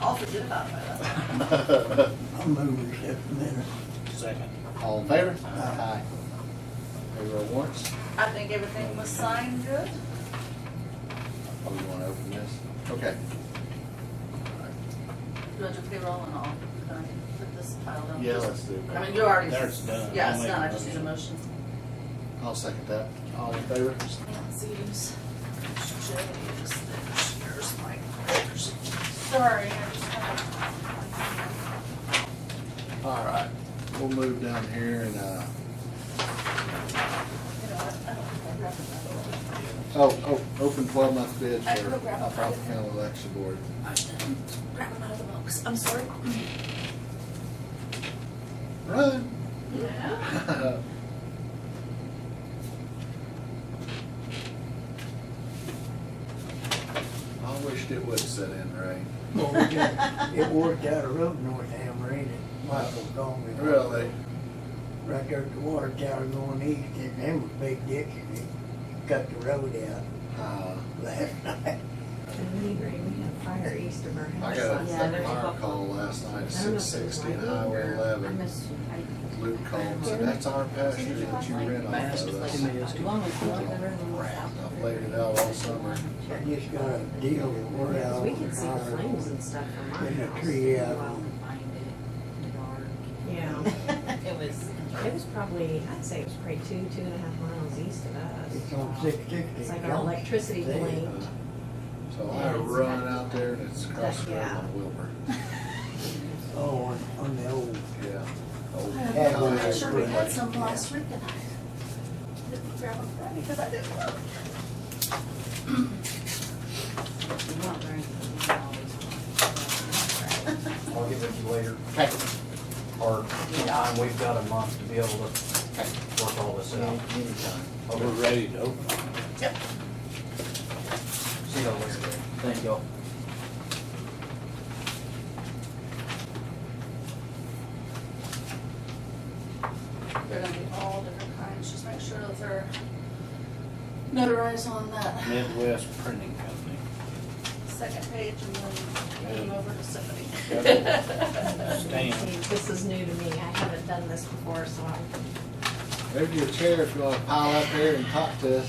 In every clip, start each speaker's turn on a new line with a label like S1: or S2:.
S1: awfully good about that.
S2: I'll move we accept the minutes.
S3: Second.
S4: All in favor?
S2: Aye.
S4: Payroll warrants.
S1: I think everything was signed good.
S4: Oh, we want to open this? Okay.
S1: Judge of payroll and all. Can I put this title down?
S4: Yeah, let's do
S1: I mean,
S4: it.
S1: you already.
S3: There it's done.
S1: Yeah,
S3: I'll
S1: it's
S3: make
S1: done.
S3: a
S1: I just need a motion.
S4: I'll second that. All in favor?
S1: Z's, J's, there's yours, mine, yours.
S5: Sorry, I just have.
S4: All right, we'll move down here and, uh,
S1: You know, what? I don't think I grabbed another
S4: oh, oh, open twelve month bids for
S1: I can grab it.
S4: Alphaba County Election Board.
S1: one. I didn't grab them out of the box. I'm sorry.
S4: Run!
S1: Yeah.
S4: I wished it would set in rain.
S2: Well, we got- It worked out a road north Hamrain and Michael called me.
S4: Really?
S2: Right there at the water tower going east and them was big ditches. They Cut the road out
S4: Uh,
S2: last night.
S6: And we agree, we have fire east of our
S4: I
S6: house.
S4: got a
S6: Yeah, there's
S4: fucking fire call last night,
S6: I don't know
S4: six
S6: if it was
S4: sixty,
S6: my room
S4: Highway
S6: or- I
S4: eleven.
S6: must- I-
S4: Luke called, said, that's our pasture that you rent off
S3: Mask
S4: of
S3: is
S4: us.
S3: like-
S6: Long as the room was out.
S4: I've laid it out all summer.
S2: I just got a deal that we're
S6: Because
S2: out
S6: we can see the flames
S2: on
S6: and stuff from our
S2: In the
S6: house.
S2: tree, yeah.
S6: Go out and find it, dark. Yeah,
S1: It was.
S6: it was probably, I'd say it was probably two, two and a half miles east of us.
S2: It's on six sixty.
S6: It's like our electricity
S2: They, uh,
S6: blinked.
S4: So I run out there and it's across the road
S6: Yeah.
S4: on Wilbur.
S2: Oh, on, on the old.
S4: Yeah.
S1: I'm
S2: Yeah, well,
S4: Oh,
S1: pretty sure we
S4: God.
S1: had some last week and I didn't grab them Friday because I didn't look.
S6: We're not very- we're not always-
S3: I'll get with you later,
S4: Okay,
S3: or anytime, we've got a month to be able to work all this
S4: so
S3: out.
S4: anytime.
S3: Oh, We're ready to open. Yep. See y'all later. Thank y'all.
S1: They're gonna be all different kinds, just make sure that they're notarized on that
S3: Midwest Printing Company,
S1: second page and then hand them over to Stephanie.
S3: Stan.
S6: This is new to me, I haven't done this before, so I'm
S4: There's your chair if you wanna pile up there and talk to us.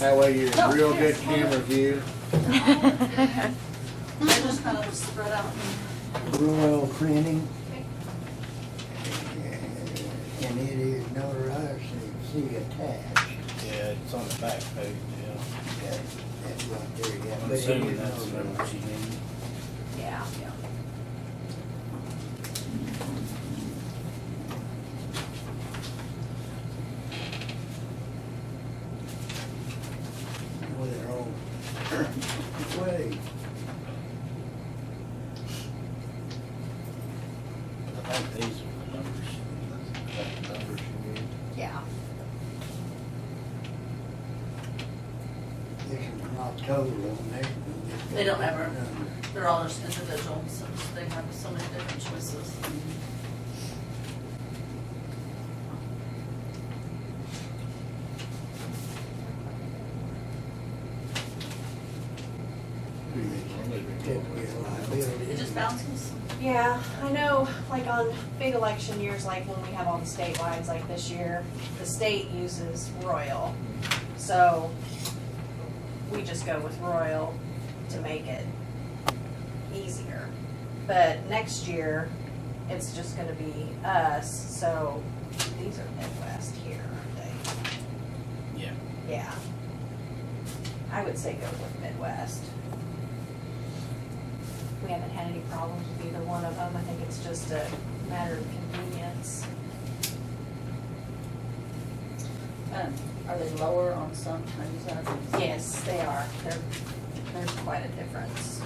S4: That way
S6: Oh,
S4: you're in real good camera view.
S1: They're just kind of spread out and
S2: Royal Printing. And it is notarized, so you see attached.
S3: Yeah, it's on the back page, yeah.
S2: That- That's right there, yeah.
S3: I'm
S2: But it
S3: assuming
S2: is
S3: that's
S2: notarized.
S3: what you need.
S6: Yeah.
S2: Well, they're all, way,
S3: I think these are the numbers.
S4: That's the numbers you need.
S6: Yeah.
S2: this is not total on there.
S1: They don't ever- they're all just individual, so just- they have so many different choices.
S2: Certificate of
S1: It just
S2: liability.
S1: bounces.
S5: Yeah, I know, like on big election years, like when we have all the statewide, like this year, the state uses Royal. So we just go with Royal to make it easier. But next year, it's just gonna be us, so these are Midwest here, aren't they?
S3: Yeah.
S5: Yeah. I would say go with Midwest. We haven't had any problems with either one of them. I think it's just a matter of convenience.
S1: And are they lower on some times than others?
S5: Yes, they are. There, there's quite a difference.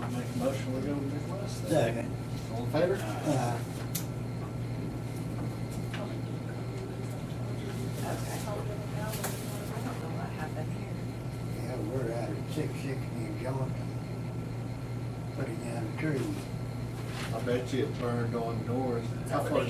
S4: I'll Make a motion, we go to Midwest. then.
S2: Second,
S4: All in favor?
S2: uh,
S5: Okay. I don't know what happened here.
S2: yeah, we're out at six sixty in Johnson. Putting down a tree.
S4: I bet you it burned on doors. How far